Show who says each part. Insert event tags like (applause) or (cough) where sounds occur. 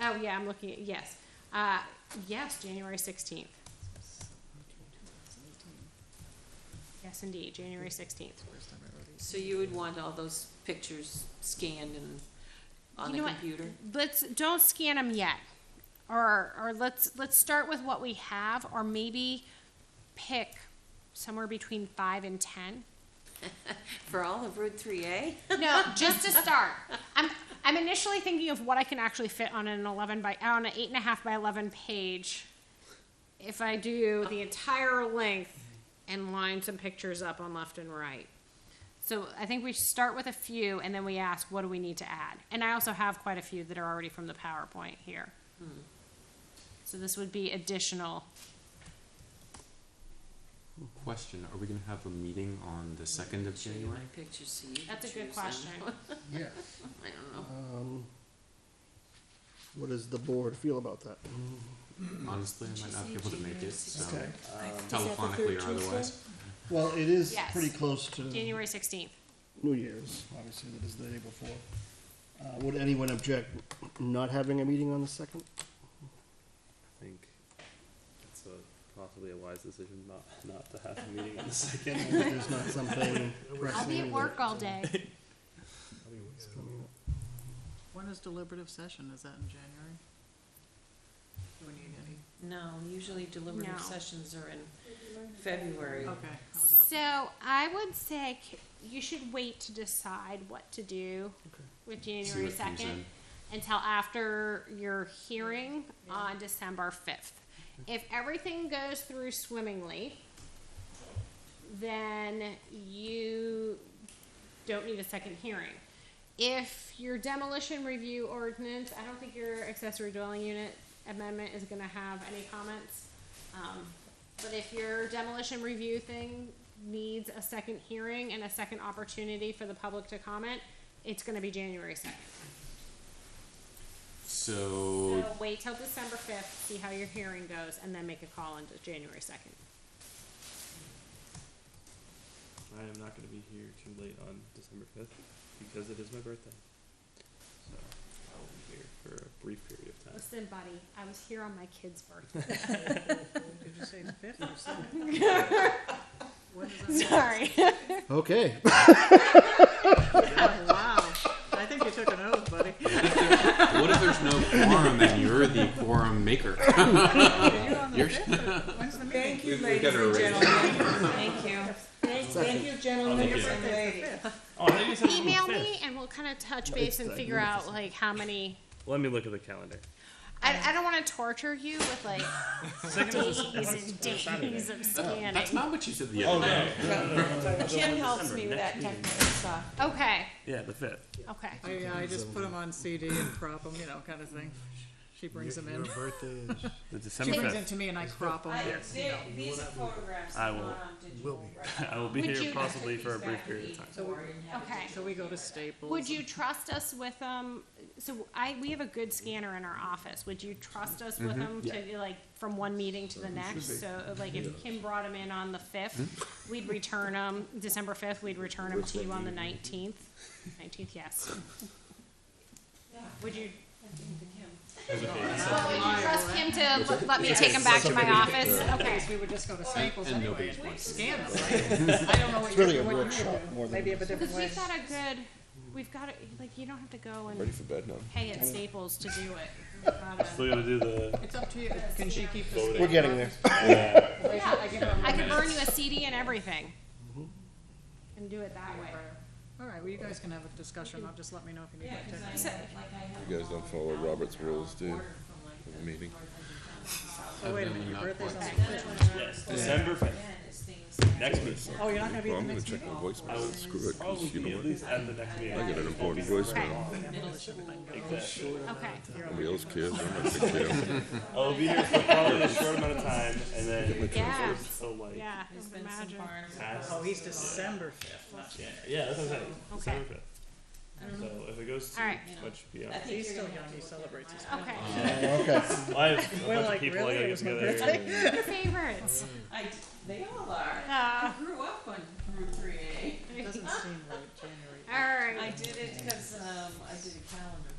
Speaker 1: Oh, yeah, I'm looking at, yes. Uh, yes, January 16th. Yes, indeed, January 16th.
Speaker 2: So you would want all those pictures scanned and on
Speaker 1: You
Speaker 2: the
Speaker 1: know what?
Speaker 2: computer?
Speaker 1: Let's don't scan them yet, or or let's let's start with what we have, or maybe pick somewhere between five and ten.
Speaker 2: For all of Route three A?
Speaker 1: No, just to start. I'm I'm initially thinking of what I can actually fit on an eleven by on an eight and a half by eleven page. If I do the entire length and line some pictures up on left and right. So I think we start with a few and then we ask what do we need to add. And I also have quite a few that are already from the PowerPoint here. So this would be additional.
Speaker 3: Question, are we gonna have a meeting on the second of
Speaker 2: Show you
Speaker 3: January?
Speaker 2: my pictures so you can
Speaker 1: That's a good
Speaker 2: choose them.
Speaker 1: question.
Speaker 4: Yes.
Speaker 2: I don't know.
Speaker 4: Um, what does the board feel about that?
Speaker 3: Honestly, I might not be able to make it, so
Speaker 4: Okay.
Speaker 3: telephonically or
Speaker 5: (laughs)
Speaker 3: otherwise.
Speaker 4: Well, it is
Speaker 1: Yes.
Speaker 4: pretty close to
Speaker 1: January sixteenth.
Speaker 4: New Year's, obviously, that is the day before. Uh, would anyone object not having a meeting on the second?
Speaker 5: I think it's a, possibly a wise decision not, not to
Speaker 4: (laughs)
Speaker 5: have a meeting on the second.
Speaker 4: If there's not something pressing.
Speaker 1: I'll be at work all day.
Speaker 4: (laughs) that's coming up.
Speaker 6: When is deliberative session? Is that in January? Do we need any?
Speaker 2: No, usually deliberative
Speaker 1: No.
Speaker 2: sessions are in February.
Speaker 6: Okay, I was off.
Speaker 1: So I would say c- you should wait to decide what to do
Speaker 4: Okay.
Speaker 1: with
Speaker 3: See
Speaker 1: January
Speaker 3: what comes in.
Speaker 1: second until after your hearing on December fifth. If everything goes through swimmingly, then you don't need a second hearing. If your demolition review ordinance, I don't think your accessory dwelling unit amendment is gonna have any comments. Um, but if your demolition review thing needs a second hearing and a second opportunity for the public to comment, it's gonna be January second.
Speaker 3: So,
Speaker 1: So wait till December fifth, see how your hearing goes, and then make a call on January second.
Speaker 5: I am not gonna be here too late on December fifth, because it is my birthday. So, I will be here for a brief period of time.
Speaker 1: Listen, buddy, I was here on my kid's (laughs) birthday.
Speaker 6: Did you say the fifth or second? When is that?
Speaker 1: Sorry.
Speaker 4: Okay,
Speaker 6: Oh, (laughs) Wow, I think you took an oath, buddy.
Speaker 3: what if there's no quorum and you're the quorum
Speaker 5: (laughs)
Speaker 3: maker?
Speaker 6: You're on the fifth, or when's the meeting?
Speaker 7: Thank you,
Speaker 3: We've-
Speaker 7: ladies
Speaker 3: we've got
Speaker 7: and
Speaker 3: our raise.
Speaker 7: gentlemen.
Speaker 2: Thank you.
Speaker 7: Thank you, gentlemen
Speaker 5: Thank you.
Speaker 7: and ladies.
Speaker 1: Email (laughs) me and we'll kind of touch base and
Speaker 4: like-
Speaker 1: figure out like how many.
Speaker 5: Let me look at the calendar.
Speaker 1: I, I don't want to torture you with (laughs) like days (laughs) and days of
Speaker 3: That's
Speaker 1: scanning.
Speaker 3: not what you said
Speaker 5: Oh,
Speaker 3: the other day.
Speaker 7: Jim helps me with that technical stuff.
Speaker 1: Okay,
Speaker 5: Yeah, the fifth.
Speaker 1: okay.
Speaker 6: I, yeah, I just put them on CD and crop them, you know, kind of thing. She brings them in.
Speaker 5: The
Speaker 6: She
Speaker 5: December
Speaker 6: brings them to me and I crop them.
Speaker 7: I, they- these are photographs
Speaker 5: I
Speaker 7: are not
Speaker 5: will-
Speaker 7: on digital. right?
Speaker 5: I will be
Speaker 1: Would you-
Speaker 5: here possibly for a
Speaker 7: These back
Speaker 5: brief period of
Speaker 7: to
Speaker 5: time.
Speaker 7: Eaton Ward and have
Speaker 1: Okay.
Speaker 7: it-
Speaker 6: So we go to Staples.
Speaker 1: Would you trust us with um? So I we have a good scanner in our office. Would you trust us with them to like from one meeting to the next? So like if Kim brought them in on the fifth, we'd return them December fifth. We'd return them to you on the nineteenth. Nineteenth, yes.
Speaker 7: Yeah.
Speaker 1: Would you?
Speaker 6: and
Speaker 1: Well, would
Speaker 6: I'll
Speaker 1: you
Speaker 6: lie
Speaker 1: trust
Speaker 6: away.
Speaker 1: Kim to let- let me take them back to my office? Okay.
Speaker 6: Because we would just go to Staples
Speaker 3: And
Speaker 6: anyway
Speaker 3: nobody's
Speaker 6: and
Speaker 3: watching.
Speaker 6: scan them, right? I don't know what
Speaker 4: really a
Speaker 6: you're, what you
Speaker 4: workshop more than
Speaker 6: do. Maybe you have a different
Speaker 1: Because
Speaker 6: way.
Speaker 1: we've got a good, we've got, a- like, you don't have to go and pay at Staples to do it. We've got a-
Speaker 5: Still gotta do the,
Speaker 6: It's up to you. Can she keep the
Speaker 4: we're getting there.
Speaker 6: I give her a
Speaker 1: I can
Speaker 6: minute.
Speaker 1: burn you a CD and everything. And do it that way.
Speaker 6: All right, well, you guys can have a discussion, I'll just let me know if you need
Speaker 7: Yeah,
Speaker 6: my
Speaker 7: 'cause
Speaker 6: attention.
Speaker 7: I- like I have
Speaker 8: You guys don't follow Robert's rules, do you?
Speaker 7: order from like
Speaker 8: For the meeting.
Speaker 6: Oh, wait a minute, your
Speaker 3: Not
Speaker 6: birthday's on the
Speaker 3: quite.
Speaker 6: fifth.
Speaker 5: yes, December
Speaker 7: Ben
Speaker 5: fifth,
Speaker 7: is things that-
Speaker 5: next meeting.
Speaker 6: Oh, you're not gonna be
Speaker 8: Well,
Speaker 6: at the
Speaker 8: I'm gonna
Speaker 6: next
Speaker 8: check
Speaker 6: meeting?
Speaker 8: my voicemail. Screw it, 'cause you
Speaker 5: Probably
Speaker 8: know
Speaker 5: at
Speaker 8: what?
Speaker 5: least at the next meeting.
Speaker 8: I got an important
Speaker 1: Okay,
Speaker 8: voicemail.
Speaker 5: Exactly.
Speaker 1: okay.
Speaker 8: Nobody else cares. I'm not gonna care.
Speaker 5: I'll be here for probably a short amount of time, and then
Speaker 1: Yeah,
Speaker 5: so like
Speaker 1: yeah,
Speaker 7: There's
Speaker 1: I would
Speaker 7: been some
Speaker 1: imagine.
Speaker 7: farms.
Speaker 5: past.
Speaker 6: Oh, he's December fifth, not
Speaker 5: Yeah, yeah, that's what I'm saying. December fifth.
Speaker 7: don't
Speaker 5: So if it goes to
Speaker 1: Alright.
Speaker 5: what should be on.
Speaker 7: I think
Speaker 6: He's
Speaker 7: you're
Speaker 6: still
Speaker 7: gonna have to
Speaker 6: young, he
Speaker 7: look at
Speaker 6: celebrates his
Speaker 7: mine.
Speaker 1: Okay,
Speaker 4: Okay,
Speaker 5: I have a
Speaker 6: We're
Speaker 5: bunch
Speaker 6: like,
Speaker 5: of people
Speaker 6: really?
Speaker 5: I
Speaker 6: It
Speaker 5: gotta get
Speaker 6: was my
Speaker 5: together.
Speaker 6: birthday?
Speaker 1: your (laughs) favorites.
Speaker 7: I, they all are. I
Speaker 1: Uh, (laughs)
Speaker 7: grew up on Route three A.
Speaker 6: Doesn't seem right, January.
Speaker 1: All right.
Speaker 7: I did it because, um, I did a calendar